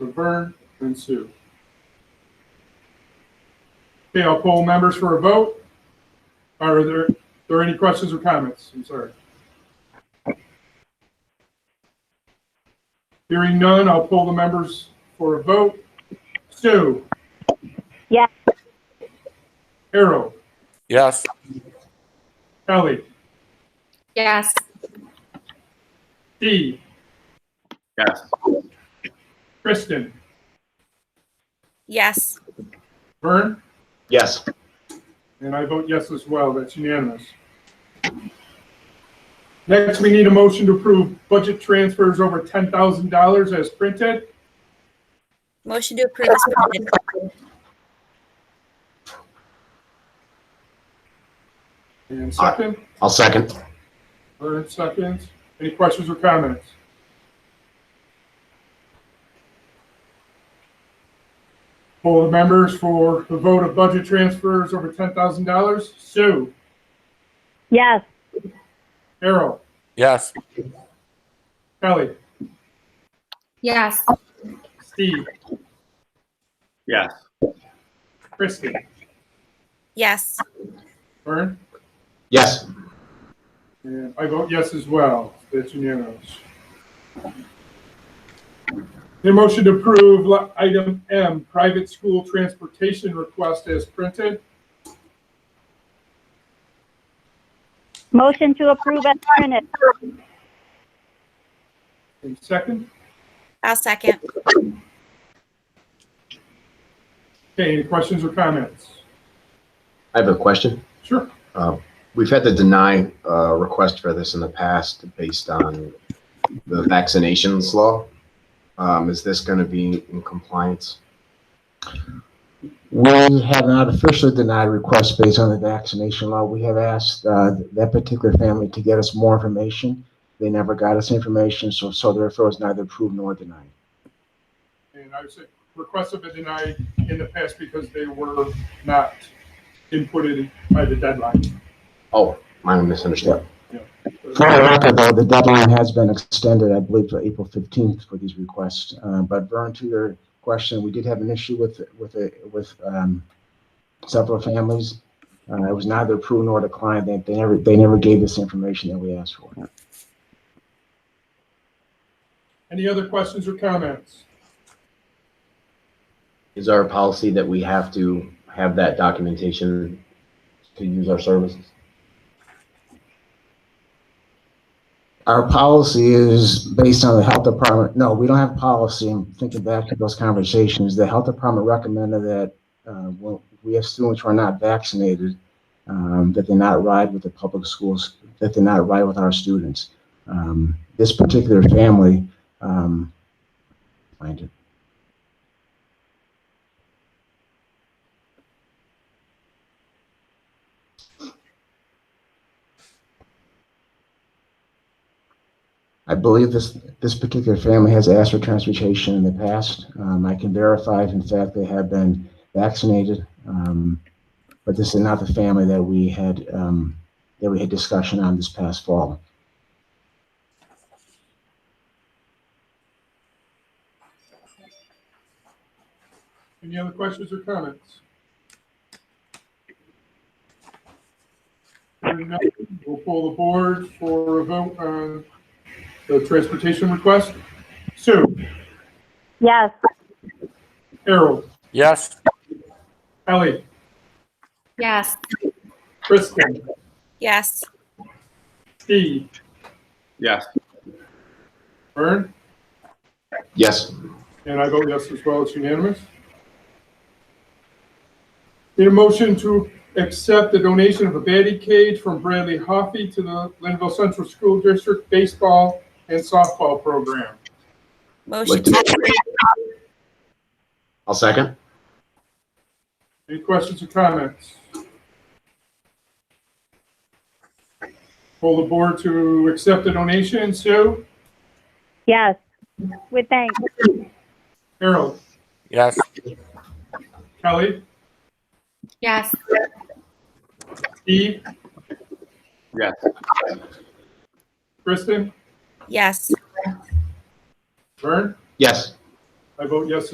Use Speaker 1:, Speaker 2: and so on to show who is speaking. Speaker 1: Laverne, and Sue. Okay, I'll poll members for a vote. Are there, are there any questions or comments? I'm sorry. Hearing none, I'll poll the members for a vote. Sue?
Speaker 2: Yes.
Speaker 1: Harold?
Speaker 3: Yes.
Speaker 1: Ellie?
Speaker 4: Yes.
Speaker 1: Dee?
Speaker 3: Yes.
Speaker 1: Kristen?
Speaker 4: Yes.
Speaker 1: Vern?
Speaker 5: Yes.
Speaker 1: And I vote yes as well, that's unanimous. Next, we need a motion to approve budget transfers over $10,000 as printed.
Speaker 4: Motion to approve is printed.
Speaker 1: And second,
Speaker 5: I'll second.
Speaker 1: Vernon seconds. Any questions or comments? Poll the members for the vote of budget transfers over $10,000. Sue,
Speaker 2: Yes.
Speaker 1: Errol,
Speaker 3: Yes.
Speaker 1: Kelly,
Speaker 4: Yes.
Speaker 1: Steve,
Speaker 3: Yes.
Speaker 1: Kristen,
Speaker 4: Yes.
Speaker 1: Vern?
Speaker 5: Yes.
Speaker 1: And I vote yes as well. That's unanimous. The motion to approve li- item M, private school transportation request as printed.
Speaker 2: Motion to approve as printed.
Speaker 1: And second,
Speaker 4: I'll second.
Speaker 1: okay, any questions or comments?
Speaker 5: I have a question.
Speaker 1: Sure.
Speaker 5: Uh, We've had to deny uh, request for this in the past based on the vaccinations law. Um, Is this going to be in compliance?
Speaker 6: We have not officially denied requests based on the vaccination law. We have asked uh, that particular family to get us more information. They never got us information, so so therefore it's neither approved nor denied.
Speaker 1: And I would say requests have been denied in the past because they were not inputted by the deadline.
Speaker 5: Oh, my misunderstanding.
Speaker 6: For the record, though, the deadline has been extended, I believe, to April 15th for these requests. Uh, But Vern, to your question, we did have an issue with, with, a- with um, several families. Uh, It was neither approved nor declined. They they never, they never gave us the information that we asked for.
Speaker 1: Any other questions or comments?
Speaker 5: Is our policy that we have to have that documentation to use our services?
Speaker 6: Our policy is based on the health department. No, we don't have policy. I'm thinking back to those conversations. The health department recommended that, uh, well, we have students who are not vaccinated, um, that they not ride with the public schools, that they not ride with our students. Um, this particular family, um, find it. I believe this, this particular family has asked for transportation in the past. Um, I can verify if in fact they have been vaccinated. Um, but this is not the family that we had, um, that we had discussion on this past fall.
Speaker 1: Any other questions or comments? Hearing none, We'll pull the board for a vote on the transportation request. Sue,
Speaker 2: Yes.
Speaker 1: Harold,
Speaker 3: Yes.
Speaker 1: Ellie,
Speaker 4: Yes.
Speaker 1: Kristen,
Speaker 4: Yes.
Speaker 1: Steve,
Speaker 3: Yes.
Speaker 1: Vern,
Speaker 5: Yes.
Speaker 1: and I vote yes as well. It's unanimous. Need a motion to accept the donation of a batting cage from Bradley Hoffey to the Linville Central School District Baseball and Softball Program.
Speaker 4: Motion
Speaker 5: Like
Speaker 4: to,
Speaker 5: to- I'll second.
Speaker 1: Any questions or comments? Pull the board to accept the donation. Sue,
Speaker 2: Yes. With thanks.
Speaker 1: Harold,
Speaker 3: Yes.
Speaker 1: Kelly,
Speaker 4: yes.
Speaker 1: Steve,
Speaker 3: Yes.
Speaker 1: Kristen,
Speaker 4: Yes.
Speaker 1: Vern,
Speaker 5: Yes.
Speaker 1: I vote yes